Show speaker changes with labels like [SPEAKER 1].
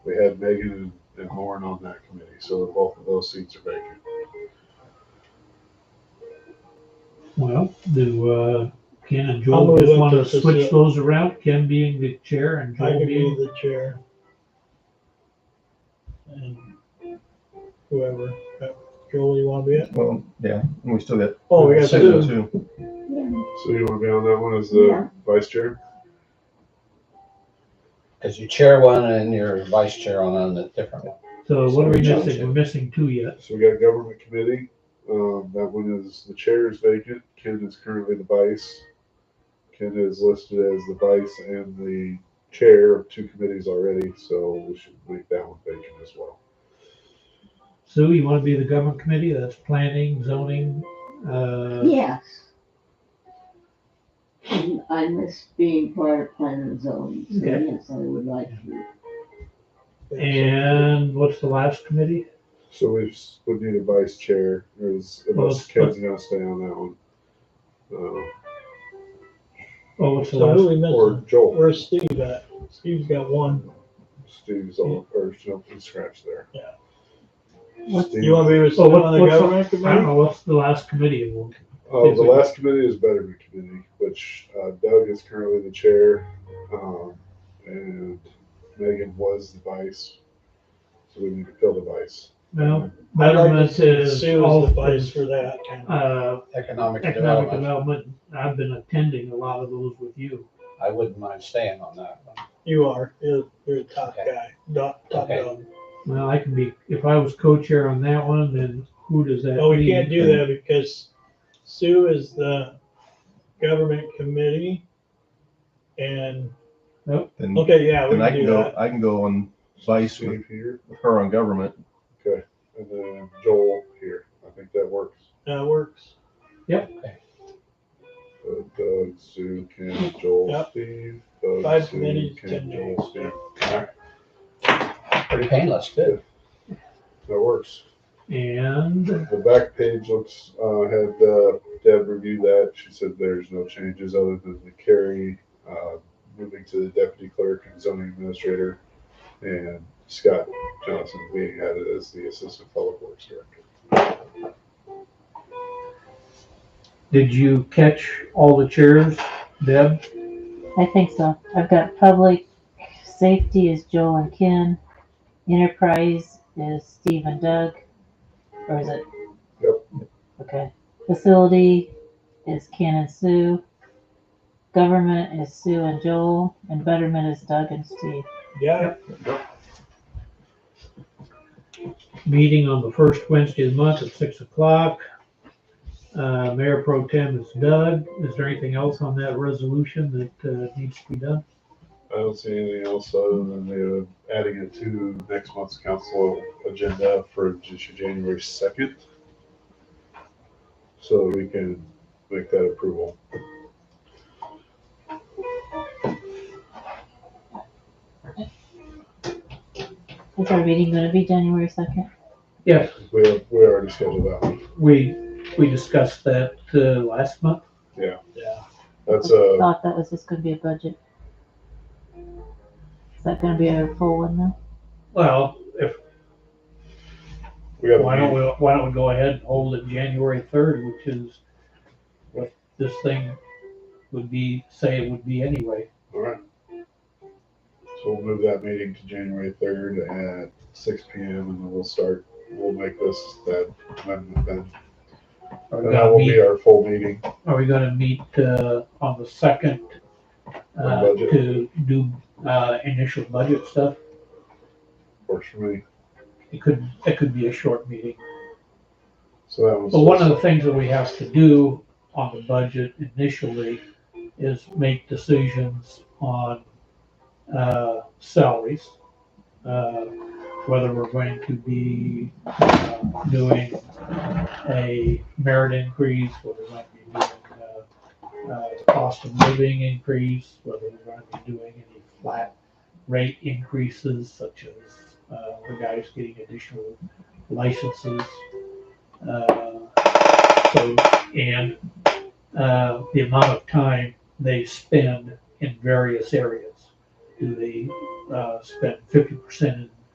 [SPEAKER 1] had Megan and, and Lauren on that committee, so both of those seats are vacant.
[SPEAKER 2] Well, do, uh, Ken and
[SPEAKER 3] I'm
[SPEAKER 2] Joel
[SPEAKER 3] gonna
[SPEAKER 2] just
[SPEAKER 3] let
[SPEAKER 2] wanna
[SPEAKER 3] this-
[SPEAKER 2] switch those around, Ken being the chair and
[SPEAKER 3] I
[SPEAKER 2] Joel
[SPEAKER 3] can be
[SPEAKER 2] being,
[SPEAKER 3] the chair. And whoever, Uh, Joel, you wanna be it?
[SPEAKER 4] Well, yeah, and we still got.
[SPEAKER 3] Oh, we got
[SPEAKER 4] Susan,
[SPEAKER 3] Susan,
[SPEAKER 4] too.
[SPEAKER 1] So you want to be on that one as the
[SPEAKER 5] Yeah.
[SPEAKER 1] vice chair?
[SPEAKER 6] Because you chair one and your vice chair on, on a different one.
[SPEAKER 2] so what are we
[SPEAKER 6] Joel.
[SPEAKER 2] missing? We're missing two yet.
[SPEAKER 1] So we got government committee, um, that one is, the chair is vacant, Ken is currently the vice. Ken is listed as the vice and the chair of two committees already, so we should leave that one vacant as well.
[SPEAKER 2] Sue, you wanna be the government committee? That's planning, zoning, uh,
[SPEAKER 5] Yes. And I miss being part of planning and zoning, so
[SPEAKER 2] Okay.
[SPEAKER 5] yes, I would like to.
[SPEAKER 2] and what's the last committee?
[SPEAKER 1] So we s- would need a vice chair, is, unless
[SPEAKER 2] Well,
[SPEAKER 1] Ken's gonna stay on that one. Uh,
[SPEAKER 2] Oh, what's the
[SPEAKER 3] So who
[SPEAKER 2] last?
[SPEAKER 3] we
[SPEAKER 1] Or
[SPEAKER 3] missing?
[SPEAKER 1] Joel,
[SPEAKER 3] Where's Steve at? Steve's got one.
[SPEAKER 1] Steve's on, or something scratch there.
[SPEAKER 3] Yeah.
[SPEAKER 1] Steve-
[SPEAKER 3] You wanna be with
[SPEAKER 2] So
[SPEAKER 3] Steve
[SPEAKER 2] Oh, what-
[SPEAKER 3] on the
[SPEAKER 2] what's up?
[SPEAKER 3] government
[SPEAKER 2] I don't
[SPEAKER 3] committee?
[SPEAKER 2] know, what's the last committee of one?
[SPEAKER 1] Uh,
[SPEAKER 2] Yes,
[SPEAKER 1] the
[SPEAKER 2] we-
[SPEAKER 1] last committee is Betterment Committee, which uh, Doug is currently the chair, um, and Megan was the vice. So we need to fill the vice.
[SPEAKER 2] No,
[SPEAKER 3] I'd like to
[SPEAKER 2] betterment
[SPEAKER 3] see
[SPEAKER 2] is
[SPEAKER 3] Sue
[SPEAKER 2] all,
[SPEAKER 3] as the vice
[SPEAKER 2] is,
[SPEAKER 3] for that.
[SPEAKER 2] uh,
[SPEAKER 6] Economic
[SPEAKER 2] economic
[SPEAKER 6] development,
[SPEAKER 2] development. I've been attending a lot of those with you.
[SPEAKER 6] I wouldn't mind staying on that one.
[SPEAKER 3] You are, you're, you're the top
[SPEAKER 6] Okay.
[SPEAKER 3] guy, top, top
[SPEAKER 6] Okay.
[SPEAKER 3] dog.
[SPEAKER 2] Well, I can be, if I was co-chair on that one, then who does that
[SPEAKER 3] Oh, we can't
[SPEAKER 2] mean?
[SPEAKER 3] do that because Sue is the government committee. And,
[SPEAKER 4] Then,
[SPEAKER 3] okay, yeah, we
[SPEAKER 4] then I
[SPEAKER 3] can
[SPEAKER 4] can
[SPEAKER 3] do
[SPEAKER 4] go,
[SPEAKER 3] that.
[SPEAKER 4] I can go on vice with
[SPEAKER 1] Steve here,
[SPEAKER 4] with her on government.
[SPEAKER 1] and then Joel here. I think that works.
[SPEAKER 3] That works.
[SPEAKER 1] So Uh, Doug, Sue, Ken, Joel,
[SPEAKER 3] Yep.
[SPEAKER 1] Steve. Doug,
[SPEAKER 3] Five
[SPEAKER 1] Sue,
[SPEAKER 3] committees,
[SPEAKER 1] Ken,
[SPEAKER 3] 10
[SPEAKER 1] Joel,
[SPEAKER 3] days.
[SPEAKER 1] Steve.
[SPEAKER 6] Pretty painless, too.
[SPEAKER 1] That works.
[SPEAKER 2] And,
[SPEAKER 1] The back page looks, uh, had, uh, Deb review that. She said there's no changes other than the carry, uh, moving to the deputy clerk and zoning administrator and Scott Johnson being added as the assistant public works director.
[SPEAKER 2] did you catch all the chairs, Deb?
[SPEAKER 7] I think so. I've got public safety is Joel and Ken. Enterprise is Steve and Doug. Or is it?
[SPEAKER 1] Yep.
[SPEAKER 7] Okay. Facility is Ken and Sue. Government is Sue and Joel. And betterment is Doug and Steve.
[SPEAKER 3] Yeah,
[SPEAKER 2] Meeting on the first Wednesday of the month at six o'clock. Uh, Mayor Pro Tem is Doug. Is there anything else on that resolution that, uh, needs to be done?
[SPEAKER 1] I don't see anything else other than they're adding it to next month's council agenda for just January second. So that we can make that approval.
[SPEAKER 7] Is our meeting going to be January 2nd?
[SPEAKER 2] Yes,
[SPEAKER 1] We, we already scheduled that one.
[SPEAKER 2] we, we discussed that, uh, last month.
[SPEAKER 3] yeah.
[SPEAKER 1] That's uh, a.
[SPEAKER 7] I thought that was just going to be a budget. Is that going to be a full one now?
[SPEAKER 2] Well, if,
[SPEAKER 1] We got
[SPEAKER 2] why
[SPEAKER 1] a
[SPEAKER 2] don't
[SPEAKER 1] meeting,
[SPEAKER 2] we, why don't we go ahead and hold it January third, which is what this thing would be, say it would be anyway.
[SPEAKER 1] all right. So we'll move that meeting to January third at six P M and then we'll start, we'll make this that amendment then.
[SPEAKER 2] Are we
[SPEAKER 1] And that
[SPEAKER 2] gonna
[SPEAKER 1] will be
[SPEAKER 2] meet,
[SPEAKER 1] our full meeting.
[SPEAKER 2] are we gonna meet, uh, on the second, uh,
[SPEAKER 1] budget.
[SPEAKER 2] to do, uh, initial budget stuff?
[SPEAKER 1] Works for me.
[SPEAKER 2] It could, it could be a short meeting.
[SPEAKER 1] So that was.
[SPEAKER 2] But one of the things that we have to do on the budget initially is make decisions on, uh, salaries. Uh, whether we're going to be, uh, doing a merit increase, whether we're going to be doing, uh, uh, cost of living increase, whether we're going to be doing any flat rate increases such as, uh, the guys getting additional licenses. Uh, so, and uh, the amount of time they spend in various areas. Do they uh, spend fifty percent in